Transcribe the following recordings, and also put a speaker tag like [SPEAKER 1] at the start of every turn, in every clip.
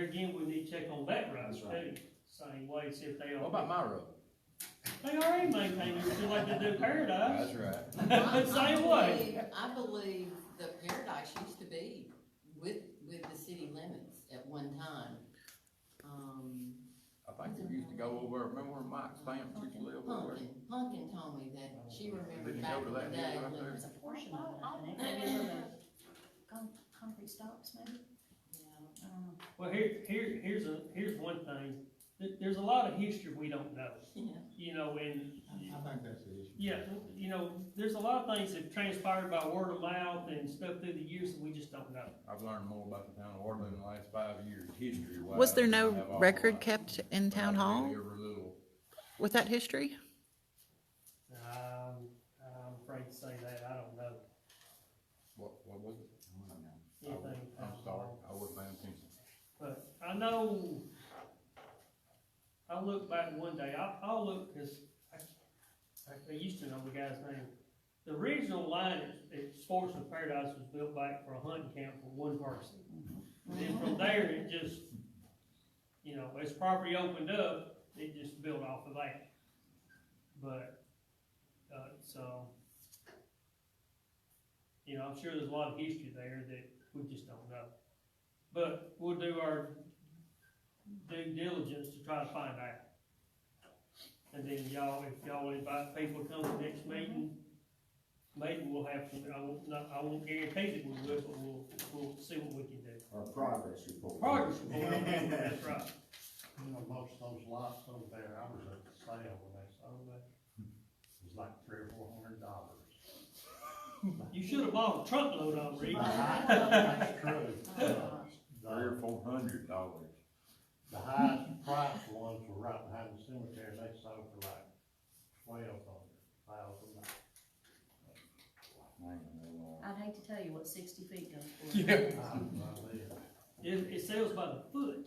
[SPEAKER 1] to check on that road
[SPEAKER 2] That's
[SPEAKER 1] too,
[SPEAKER 2] right.
[SPEAKER 1] same way, see if they
[SPEAKER 3] What
[SPEAKER 1] are,
[SPEAKER 3] about my road?
[SPEAKER 1] they already maintain it, just like they do Paradise.
[SPEAKER 3] That's right.
[SPEAKER 4] I- I
[SPEAKER 1] Same way.
[SPEAKER 4] believe- I believe the Paradise used to be with, with the city limits at one time. Um,
[SPEAKER 3] I think we used to go over, remember where Mike Stamps used to live over there?
[SPEAKER 4] Punkin, Punkin told me that she
[SPEAKER 3] Did you
[SPEAKER 4] remembered
[SPEAKER 3] go
[SPEAKER 4] back
[SPEAKER 3] to
[SPEAKER 4] in the
[SPEAKER 3] that
[SPEAKER 4] day
[SPEAKER 3] meeting right
[SPEAKER 4] when,
[SPEAKER 3] there?
[SPEAKER 5] There's a portion of it, I think, remember the con- concrete stops maybe,
[SPEAKER 4] yeah,
[SPEAKER 5] I don't know.
[SPEAKER 1] Well, here, here, here's a, here's one thing, There- there's a lot of history we don't know,
[SPEAKER 4] yeah.
[SPEAKER 1] you know, and
[SPEAKER 2] I think that's the issue.
[SPEAKER 1] Yeah, you know, there's a lot of things that transpired by word of mouth and stuff through the years that we just don't know.
[SPEAKER 3] I've learned more about the town of Waterloo in the last five years, history wise.
[SPEAKER 6] Was there no record kept in town hall
[SPEAKER 3] Every little,
[SPEAKER 6] with that history?
[SPEAKER 1] Um, I'm afraid to say that, I don't know
[SPEAKER 3] what, what was it?
[SPEAKER 1] anything.
[SPEAKER 3] I'm sorry, I wasn't paying attention.
[SPEAKER 1] But I know, I look back one day, I, I'll look, cause I, I used to know the guy's name. The original line at, at Sports and Paradise was built back for a hunting camp for one person. And then from there, it just, you know, as property opened up, it just built off of that. But, uh, so, you know, I'm sure there's a lot of history there that we just don't know. But we'll do our due diligence to try to find out. And then y'all, if y'all invite people to come to the next meeting, maybe we'll have some, I won't, not, I won't guarantee that we will, but we'll, we'll see what we can do.
[SPEAKER 2] Or progress report.
[SPEAKER 1] Progress report, that's right.
[SPEAKER 7] You know, most of those lots over there, I was at the sale when they sold it, it was like three or four hundred dollars.
[SPEAKER 1] You should have bought a truckload of them, Reed.
[SPEAKER 7] That's true.
[SPEAKER 3] Three
[SPEAKER 7] The,
[SPEAKER 3] or four hundred dollars.
[SPEAKER 7] the highest price ones were right behind the cemetery, they sold for like twelve hundred thousand.
[SPEAKER 3] Man, they are.
[SPEAKER 5] I'd hate to tell you what sixty feet goes for.
[SPEAKER 3] Yeah.
[SPEAKER 1] It, it sells by the foot,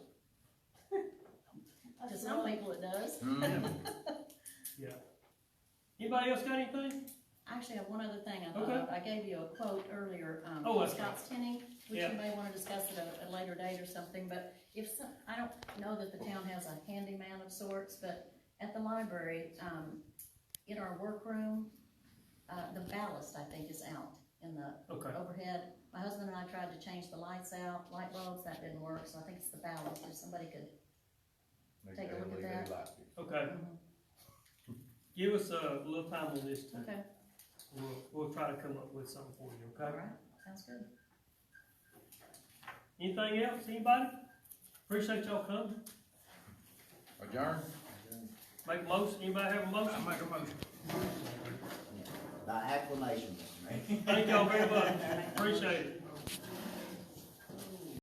[SPEAKER 5] To some people it does.
[SPEAKER 3] Hmm.
[SPEAKER 1] yeah. Anybody else got anything?
[SPEAKER 5] Actually, I have one other thing I
[SPEAKER 1] Okay.
[SPEAKER 5] thought of. I gave you a quote earlier, um,
[SPEAKER 1] Oh,
[SPEAKER 5] from
[SPEAKER 1] that's right.
[SPEAKER 5] Scott's Tenny, which
[SPEAKER 1] Yeah.
[SPEAKER 5] you may wanna discuss at a, a later date or something, but if some, I don't know that the town has a handyman of sorts, but at the library, um, in our workroom, uh, the ballast, I think, is out in the
[SPEAKER 1] Okay,
[SPEAKER 5] overhead. My husband and I tried to change the lights out, light bulbs, that didn't work, so I think it's the ballast, if somebody could,
[SPEAKER 3] They
[SPEAKER 5] Take a look at
[SPEAKER 3] really
[SPEAKER 5] that.
[SPEAKER 3] like it.
[SPEAKER 1] okay. Give us a little time on this, too.
[SPEAKER 5] okay,
[SPEAKER 1] We'll, we'll try to come up with something for you,
[SPEAKER 5] all
[SPEAKER 1] okay?
[SPEAKER 5] right, sounds good.
[SPEAKER 1] Anything else, anybody? Appreciate y'all coming.
[SPEAKER 3] Adjourn?
[SPEAKER 1] Make a motion, anybody have a motion?
[SPEAKER 3] I make a motion.
[SPEAKER 2] By acclamation, Mr. Mayor.
[SPEAKER 1] Thank y'all very much, appreciate it.